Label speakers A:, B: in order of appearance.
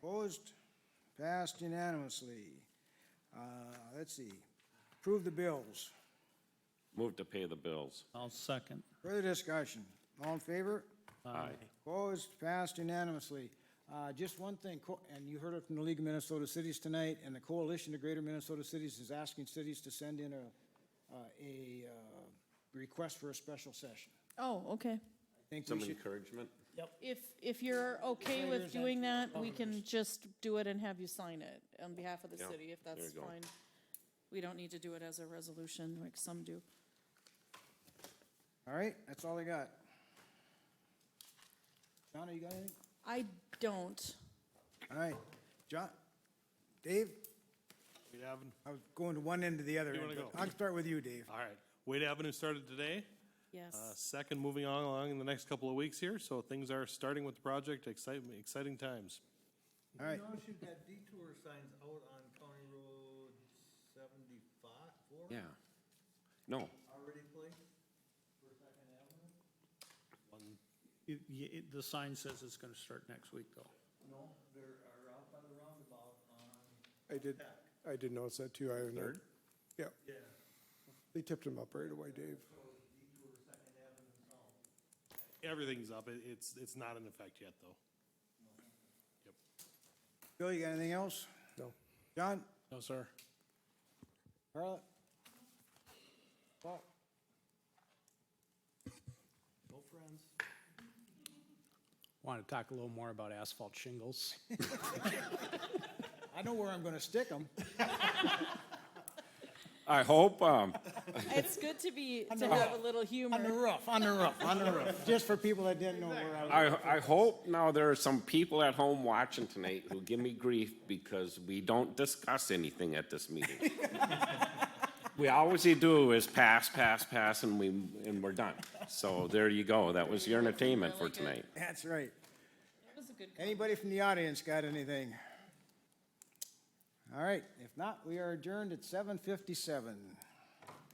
A: Opposed? Passed unanimously. Uh, Let's see, approve the bills.
B: Move to pay the bills.
C: I'll second.
A: Further discussion? All in favor?
B: Aye.
A: Opposed? Passed unanimously. Uh, Just one thing, co- and you heard it from the League of Minnesota Cities tonight, and the Coalition of Greater Minnesota Cities is asking cities to send in a, uh, a uh, request for a special session.
D: Oh, okay.
A: I think
B: Some
A: we should,
B: encouragement?
D: If, if you're okay with doing that, we can just do it and have you sign it on behalf of the
B: Yeah,
D: city, if
B: there
D: that's
B: you go.
D: fine. We don't need to do it as a resolution like some do.
A: all right, that's all I got. Donna, you got anything?
D: I don't.
A: All right, John, Dave,
E: Wade Avenue,
A: I was going to one end to the other.
E: You wanna
A: end, but
E: go?
A: I'll start with you, Dave.
E: all right. Wade Avenue started today. Uh,
D: Yes.
E: Second, moving on along in the next couple of weeks here, so things are starting with the project, exciting, exciting times. Uh,
A: All right.
F: You notice you've got detour signs out on County Road seventy-five, four?
B: Yeah. No,
F: Already placed for Second Avenue?
C: It- y- it- The sign says it's going to start next week, though.
F: No, there are out by the roundabout on.
G: I did, I did notice that too. I,
B: Third?
G: yeah,
F: Yeah.
G: they tipped him up right away, Dave.
F: Detour Second Avenue south.
E: Everything's up. It- It's, it's not in effect yet, though.
A: Bill, you got anything else?
G: No.
A: John,
E: No, sir.
A: Carla? Paul?
F: No friends.
H: Want to talk a little more about asphalt shingles.
A: I know where I'm going to stick them.
B: I hope, um,
D: It's good to be,
A: On
D: to
A: Uh, the
D: have a little humor.
A: roof, on the roof, on the roof. Just for people that didn't know where I was.
B: I, I hope now there are some people at home watching tonight who give me grief because we don't discuss anything at this meeting. We always do is pass, pass, pass, and we, and we're done. So there you go. That was your entertainment for tonight.
A: That's right.
D: It was a good.
A: Anybody from the audience got anything? All right, if not, we are adjourned at 7:57.